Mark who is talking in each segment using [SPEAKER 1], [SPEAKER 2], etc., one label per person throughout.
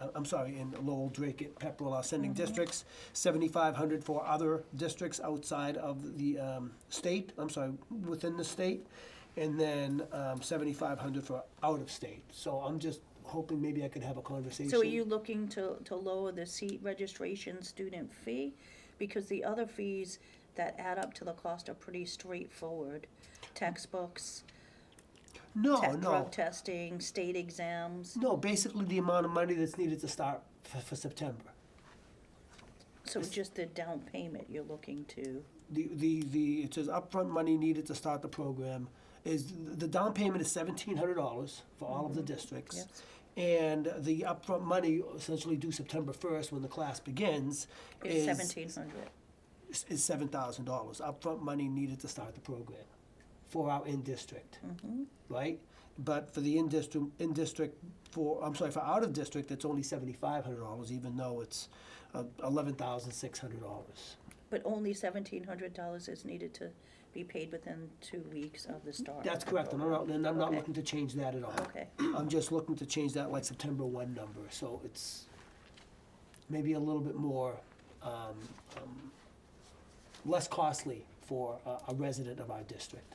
[SPEAKER 1] uh, I'm sorry, in Lowell, Drake, and Pepperell are sending
[SPEAKER 2] Mm-hmm.
[SPEAKER 1] districts, seventy-five hundred for other districts outside of the um, state, I'm sorry, within the state, and then um, seventy-five hundred for out of state. So I'm just hoping maybe I could have a conversation.
[SPEAKER 2] So are you looking to, to lower the seat registration student fee? Because the other fees that add up to the cost are pretty straightforward. Textbooks,
[SPEAKER 1] Oh, No,
[SPEAKER 2] te-
[SPEAKER 1] no,
[SPEAKER 2] drug testing, state exams.
[SPEAKER 1] no, basically the amount of money that's needed to start for, for September.
[SPEAKER 2] So just the down payment you're looking to,
[SPEAKER 1] the, the, the, it says upfront money needed to start the program is, the down payment is seventeen hundred dollars for all of the districts.
[SPEAKER 2] Mm-hmm. Yes.
[SPEAKER 1] And the upfront money essentially due September first, when the class begins,
[SPEAKER 2] is
[SPEAKER 1] is,
[SPEAKER 2] seventeen hundred.
[SPEAKER 1] is seven thousand dollars, upfront money needed to start the program for our in-district,
[SPEAKER 2] Mm-hmm.
[SPEAKER 1] right? But for the in-district, in-district, for, I'm sorry, for out-of-district, it's only seventy-five hundred dollars, even though it's uh, eleven thousand six hundred dollars.
[SPEAKER 2] But only seventeen hundred dollars is needed to be paid within two weeks of the start. of
[SPEAKER 1] That's
[SPEAKER 2] the
[SPEAKER 1] correct, and I'm not, and I'm not
[SPEAKER 2] Okay.
[SPEAKER 1] looking to change that at all.
[SPEAKER 2] Okay.
[SPEAKER 1] I'm just looking to change that like September one number, so it's maybe a little bit more, um, um, less costly for a, a resident of our district.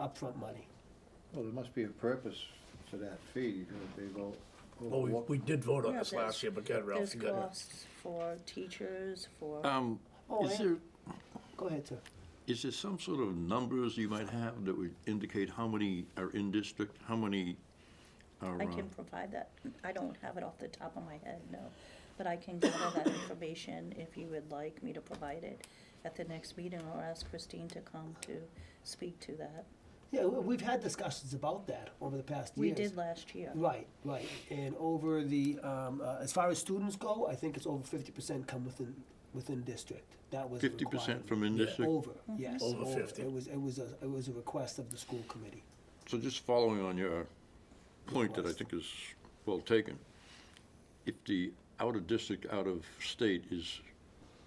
[SPEAKER 1] Upfront money.
[SPEAKER 3] Well, there must be a purpose to that fee, because they go.
[SPEAKER 4] Well, Oh, we, we did vote on
[SPEAKER 2] Yeah,
[SPEAKER 4] this
[SPEAKER 2] there's-
[SPEAKER 4] last year, but God, Ralph,
[SPEAKER 2] There's
[SPEAKER 4] you got
[SPEAKER 2] costs for teachers, for,
[SPEAKER 5] Um,
[SPEAKER 1] Oh,
[SPEAKER 5] is
[SPEAKER 1] I-
[SPEAKER 5] there,
[SPEAKER 1] Go ahead, sir.
[SPEAKER 5] is there some sort of numbers you might have that would indicate how many are in district, how many are,
[SPEAKER 2] I
[SPEAKER 5] uh,
[SPEAKER 2] can provide that. I don't have it off the top of my head, no. But I can gather that information if you would like me to provide it at the next meeting or ask Christine to come to speak to that.
[SPEAKER 1] Yeah, we- we've had discussions about that over the past
[SPEAKER 2] We
[SPEAKER 1] years.
[SPEAKER 2] did last year.
[SPEAKER 1] Right, right, and over the, um, uh, as far as students go, I think it's over fifty percent come within, within district. That was a
[SPEAKER 5] 50% from
[SPEAKER 1] requirement.
[SPEAKER 5] in
[SPEAKER 4] Yeah.
[SPEAKER 5] district?
[SPEAKER 1] Over, yes.
[SPEAKER 4] Over 50.
[SPEAKER 1] It was, it was a, it was a request of the school committee.
[SPEAKER 5] So just following on your point that I think is well taken, if the out of district, out of state is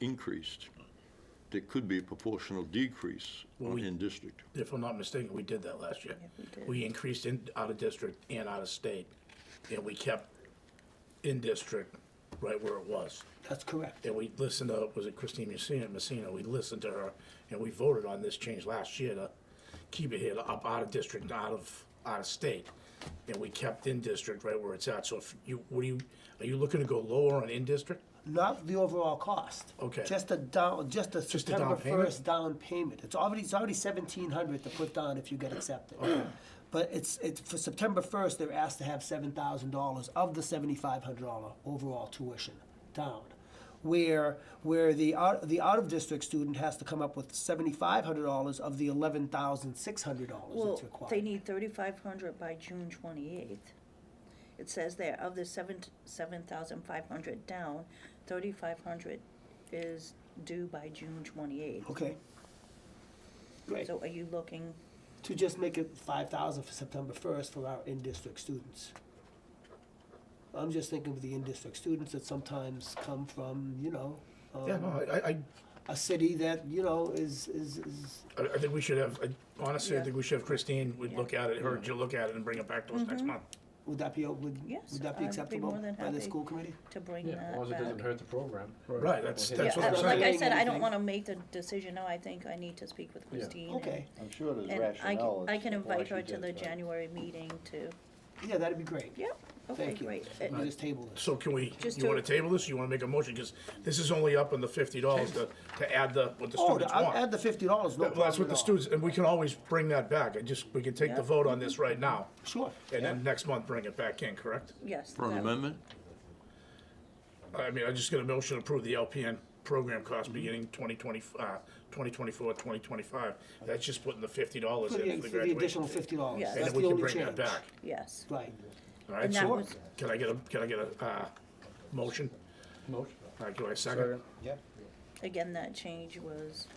[SPEAKER 5] increased, there could be a proportional decrease
[SPEAKER 4] Well,
[SPEAKER 5] on
[SPEAKER 4] we-
[SPEAKER 5] in district.
[SPEAKER 4] it. If I'm not mistaken, we did that last year.
[SPEAKER 2] Yeah, we did.
[SPEAKER 4] We increased in, out of district and out of state, and we kept in district right where it was.
[SPEAKER 1] That's correct.
[SPEAKER 4] And we listened to, was it Christine Messina, Messina, we listened to her, and we voted on this change last year to keep it here, to up out of district, and out of, out of state. And we kept in district right where it's at, so if you, what do you, are you looking to go lower on in district?
[SPEAKER 1] Not the overall cost.
[SPEAKER 4] Okay.
[SPEAKER 1] Just a down, just a
[SPEAKER 4] Just a down
[SPEAKER 1] September
[SPEAKER 4] payment?
[SPEAKER 1] first down payment. It's already, it's already seventeen hundred to put down if you get accepted. But it's, it's, for September first, they're asked to have seven thousand dollars of the seventy-five hundred dollar overall tuition down. Where, where the out, the out-of-district student has to come up with seventy-five hundred dollars of the eleven thousand six hundred dollars
[SPEAKER 2] Well,
[SPEAKER 1] that's required.
[SPEAKER 2] they need thirty-five hundred by June twenty-eighth. It says there, of the seven, seven thousand five hundred down, thirty-five hundred is due by June twenty-eighth.
[SPEAKER 1] Okay. Great.
[SPEAKER 2] So are you looking,
[SPEAKER 1] to just make it five thousand for September first for our in-district students. I'm just thinking of the in-district students that sometimes come from, you know, um,
[SPEAKER 4] Yeah, no, I, I,
[SPEAKER 1] a city that, you know, is, is, is,
[SPEAKER 4] I, I think we should have, I- honestly, I
[SPEAKER 2] Yeah.
[SPEAKER 4] think we should have Christine, we'd
[SPEAKER 2] Yeah.
[SPEAKER 4] look at it, her, you'll look at it and bring it back to us
[SPEAKER 2] Mm-hmm.
[SPEAKER 4] next month.
[SPEAKER 1] would that be, would,
[SPEAKER 2] Yes,
[SPEAKER 1] would that
[SPEAKER 2] I'd be
[SPEAKER 1] be acceptable
[SPEAKER 2] more than
[SPEAKER 1] by the
[SPEAKER 2] happy.
[SPEAKER 1] school committee?
[SPEAKER 2] to bring that
[SPEAKER 6] Yeah, as long as it
[SPEAKER 2] back?
[SPEAKER 6] doesn't hurt the program.
[SPEAKER 4] Right, that's,
[SPEAKER 6] Yeah,
[SPEAKER 4] that's what
[SPEAKER 2] Yeah,
[SPEAKER 4] I'm
[SPEAKER 2] uh,
[SPEAKER 4] saying.
[SPEAKER 2] like I
[SPEAKER 1] saying.
[SPEAKER 2] said, I don't
[SPEAKER 1] Anything.
[SPEAKER 2] wanna make the decision now, I think I need to speak with Christine. and-
[SPEAKER 1] Okay,
[SPEAKER 3] I'm sure there's
[SPEAKER 2] And I
[SPEAKER 3] rationale.
[SPEAKER 2] can, I
[SPEAKER 3] as
[SPEAKER 2] can
[SPEAKER 3] to why
[SPEAKER 2] invite
[SPEAKER 3] she
[SPEAKER 2] her to
[SPEAKER 3] did
[SPEAKER 2] the
[SPEAKER 3] it, but-
[SPEAKER 2] January meeting to,
[SPEAKER 1] yeah, that'd be great.
[SPEAKER 2] yeah, okay,
[SPEAKER 1] Thank you.
[SPEAKER 2] great. Uh,
[SPEAKER 1] We just table this.
[SPEAKER 4] So can we,
[SPEAKER 2] Just
[SPEAKER 4] you wanna
[SPEAKER 2] to-
[SPEAKER 4] table this, you wanna make a motion, cause this is only up on the fifty dollars to, to add the, what the
[SPEAKER 1] Oh,
[SPEAKER 4] students
[SPEAKER 1] I'll
[SPEAKER 4] want.
[SPEAKER 1] add the fifty dollars, no
[SPEAKER 4] Well, that's
[SPEAKER 1] problem
[SPEAKER 4] what
[SPEAKER 1] at
[SPEAKER 4] the
[SPEAKER 1] all.
[SPEAKER 4] students, and we can always bring that back, I just, we can take
[SPEAKER 2] Yeah.
[SPEAKER 4] the vote on this right now.
[SPEAKER 1] Sure.
[SPEAKER 4] And then next month, bring it back in, correct?
[SPEAKER 2] Yes.
[SPEAKER 5] For an
[SPEAKER 2] that-
[SPEAKER 5] amendment?
[SPEAKER 4] I mean, I'm just gonna motion to approve the LPN program
[SPEAKER 1] Mm-hmm.
[SPEAKER 4] cost beginning twenty twenty, uh, twenty twenty-four, twenty twenty-five. That's just putting the fifty dollars
[SPEAKER 1] For
[SPEAKER 4] in
[SPEAKER 1] the,
[SPEAKER 4] for the
[SPEAKER 1] for the
[SPEAKER 4] graduation.
[SPEAKER 1] additional fifty dollars,
[SPEAKER 2] Yeah.
[SPEAKER 1] that's
[SPEAKER 2] And
[SPEAKER 1] the
[SPEAKER 4] And
[SPEAKER 1] only
[SPEAKER 4] then
[SPEAKER 1] change.
[SPEAKER 4] we can bring that back.
[SPEAKER 2] Yes,
[SPEAKER 1] Right,
[SPEAKER 4] All right,
[SPEAKER 2] And that
[SPEAKER 4] so,
[SPEAKER 2] was-
[SPEAKER 4] can I get a, can I get a, uh, motion?
[SPEAKER 6] Motion.
[SPEAKER 4] All right, do I second?
[SPEAKER 6] Yeah.
[SPEAKER 2] again, that change was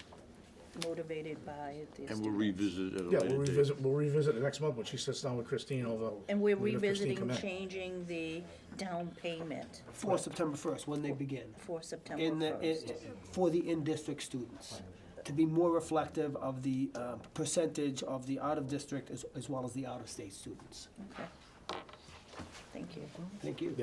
[SPEAKER 2] motivated by the
[SPEAKER 5] And we'll
[SPEAKER 2] students.
[SPEAKER 5] revisit it at a
[SPEAKER 4] Yeah,
[SPEAKER 5] later date.
[SPEAKER 4] we'll revisit, we'll revisit it next month when she sits down with Christine over.
[SPEAKER 2] And we're
[SPEAKER 4] when Christine
[SPEAKER 2] revisiting
[SPEAKER 4] come in.
[SPEAKER 2] changing the down payment
[SPEAKER 1] for September first, when they begin.
[SPEAKER 2] for September
[SPEAKER 1] in the, in,
[SPEAKER 2] first.
[SPEAKER 1] for the in-district students, to be more reflective of the uh, percentage of the out-of-district as, as well as the out-of-state students.
[SPEAKER 2] Thank you.
[SPEAKER 1] Thank you.